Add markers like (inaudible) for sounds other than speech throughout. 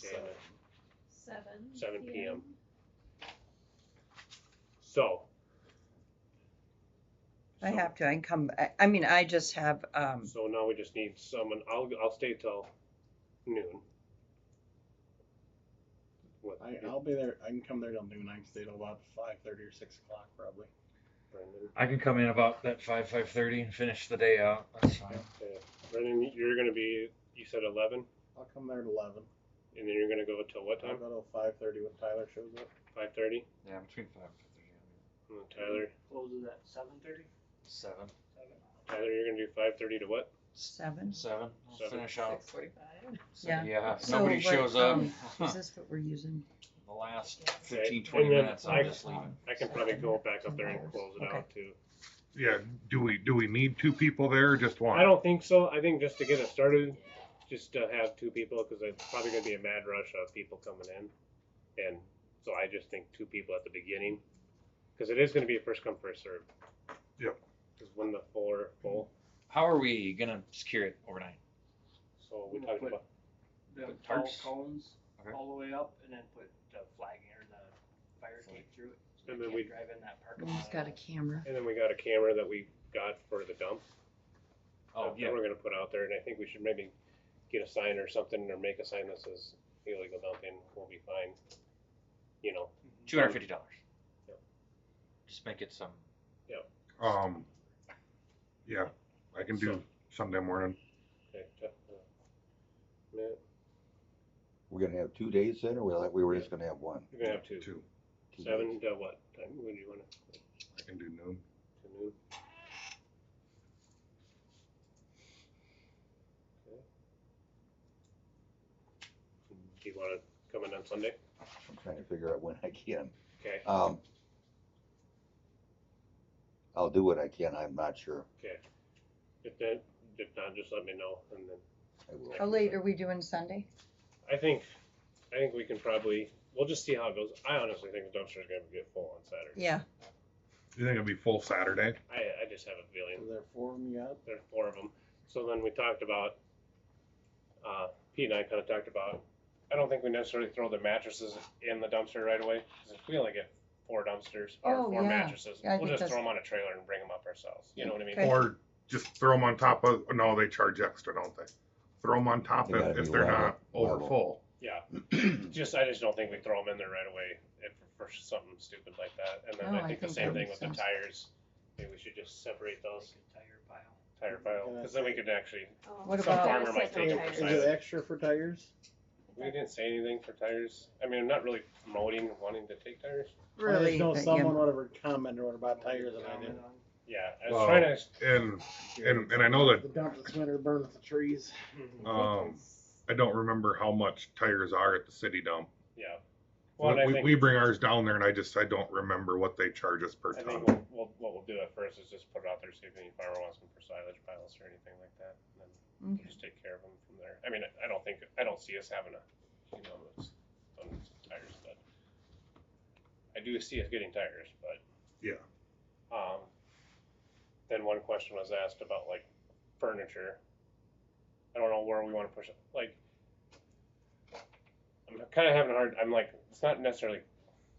Shannon. Seven. 7 PM. So. I so- have to, I can come, I, I mean, I just have, um, So now we just need someone, I'll, I'll stay till noon. What, I, I'll be there. I can come there till noon. I can stay till about five thirty or six o'clock probably. Brendan? I can come in about that five five thirty and finish the day out. That's fine. Yeah. Brendan, you're gonna be, you said eleven, I'll come there at eleven. and then you're gonna go till what I'll time? go till five thirty when Tyler shows up. Five thirty? Yeah, between five and thirty. Uh, Tyler, Closes at seven thirty? Seven. Tyler, you're gonna do five thirty to what? seven. Seven. I'll Seven. finish out. Six forty-five. So, Yeah. yeah. If So nobody what, shows up. (laughs) um, Is this what we're using? the last Okay, 15, and 20 then minutes, I- I'm just leaving. I can probably go back up there and close it Okay. out too. Yeah, do we, do we need two people there or just one? I don't think so, I think just to get it started, just to have two people, cause it's probably gonna be a mad rush of people coming in. And so I just think two people at the beginning, cause it is gonna be a first come, first serve. Yep. Cause when the four are full, How are we going to secure it overnight? so we We'll talked put- about, The Put tall tarps? cones Okay. all the way up and then put the flagging or the fire tape through it. So And they then can't we- drive in that parking lot. He's got a camera. and then we got a camera that we got for the dump. Oh, that yeah. We're gonna put out there, and I think we should maybe get a sign or something, or make a sign that says illegal dumping, we'll be fine. You know, $250. Yep. Just make it some. Um, yeah, I can do So- Sunday morning. okay, Jeff, uh, yeah, We're gonna have two days then, or we like, we were just gonna have one? you're gonna have two, Two, Two seven days. to what, time, when do you wanna, I can do noon. to noon? Okay. Do you wanna come in on Sunday? I'm trying to figure out when I can. Okay, Um, I'll do what I can, I'm not sure. if that, if not, just let me know, and then I will. How late are we doing Sunday? I think, I think we can probably. We'll just see how it goes. I honestly think the dumpster's going to get full on Saturday. Yeah, You think it'll be full Saturday? I, I just have a feeling Is there four of them yet? there are four of them. So then we talked about. Uh, Pete and I kind of talked about. I don't think we necessarily throw the mattresses in the dumpster right away because if we only get four dumpsters or Oh, four yeah. mattresses, Yeah, I we'll think just that's- throw them on a trailer and bring them up ourselves. You know what I mean? Okay. Or just throw them on top of, no, they charge extra, don't they? Throw them on top They if, gotta if be they're level- not over level. full. Yeah. just I just don't think we throw them in there right away if for something stupid like that. And then No, I Oh, I think the think same that thing with makes the sense. tires. Maybe we should just separate Like those a Tire pile. tire file because then we could actually. What Oh, Some about- farmer might take them for Is it silage. extra for tires? We didn't say anything for tires. I mean, I'm not really promoting wanting to take tires. I really. just know but, yeah. someone would have commented about tires and I didn't. Comment on- Yeah, I was Well, trying to. And, and, and I know that, The dump this winter burns the trees. mm-hmm. um, I don't remember how much tires are at the city dump. Yeah. Well, and I we, think we bring ours down there and I just, I don't remember what they charge us per I ton. think we'll, we'll, what we'll do at first is just put it out there, see if any farmer wants them for silage piles or anything like that, and then we'll Okay. just take care of them from there. I mean, I don't think, I don't see us having a, you know, those tons of tires, but I do see us getting tires, but. Yeah. Um, then one question was asked about like furniture. I don't know where we wanna push it, like, I'm kinda having a hard, I'm like, it's not necessarily,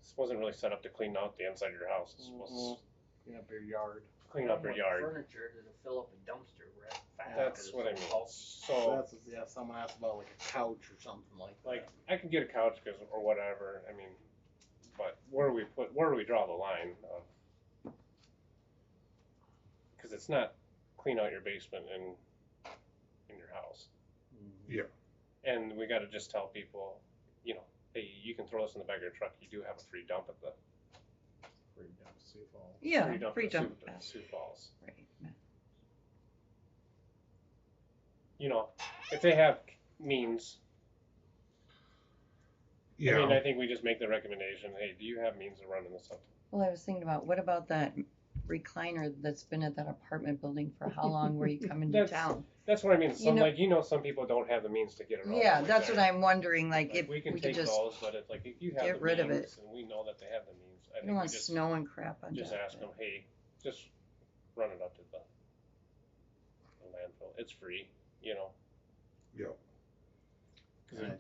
this wasn't really set up to clean out the inside of your house, it's supposed to Mhm. Clean up your yard. clean up your What yard. Furniture that'll fill up a dumpster. We're at five. That's what I mean. So, That's, yeah, someone asked about like a couch or something like that. like, I can get a couch 'cause- or whatever. I mean, but where do we put, where do we draw the line of? Because it's not clean out your basement and in your house, and we got to just tell people, you know, hey, you can throw this in the back of your truck. You do have a free dump at the Free dump, see if all- Yeah, free dump, free at dump. Sioux, Sioux Falls. Right. You know, if they have means, I mean, Yeah, I think we just make the recommendation. Hey, do you have means of running this up? Well, I was thinking about, what about that recliner that's been at that apartment building for how long were you (laughs) coming to That's- town? That's what I mean. Some know- like you know, some people don't have the means to get it. all Yeah, the way that's what there. I'm wondering, like, Like, if we we can could take just, those, but if like if you have get the rid of means and we know that they have the means, I I don't think we want just snow and crap on top just ask of them, it. hey, just run it up to the, the landfill. It's free, you know. yeah. Because